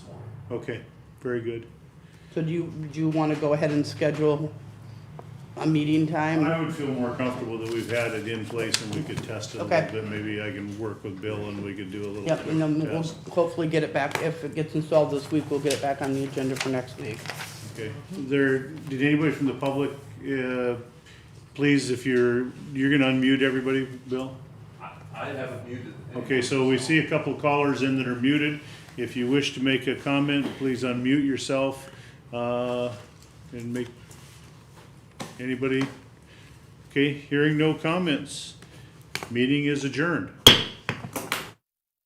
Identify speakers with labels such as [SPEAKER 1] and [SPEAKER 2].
[SPEAKER 1] Okay, very good.
[SPEAKER 2] So do you, do you want to go ahead and schedule a meeting time?
[SPEAKER 1] I would feel more comfortable that we've had it in place and we could test it a
[SPEAKER 2] Okay.
[SPEAKER 1] little bit. Maybe I can work with Bill and we could do a little
[SPEAKER 2] Yep, and then
[SPEAKER 1] quick
[SPEAKER 2] we'll
[SPEAKER 1] test.
[SPEAKER 2] hopefully get it back, if it gets installed this week, we'll get it back on the agenda for next week.
[SPEAKER 1] Okay, there, did anybody from the public, uh, please, if you're, you're gonna unmute everybody, Bill?
[SPEAKER 3] I I haven't muted. anyone.
[SPEAKER 1] Okay, so we see a couple callers in that are muted. If you wish to make a comment, please unmute yourself, uh, and make, anybody? Okay, hearing no comments, meeting is adjourned.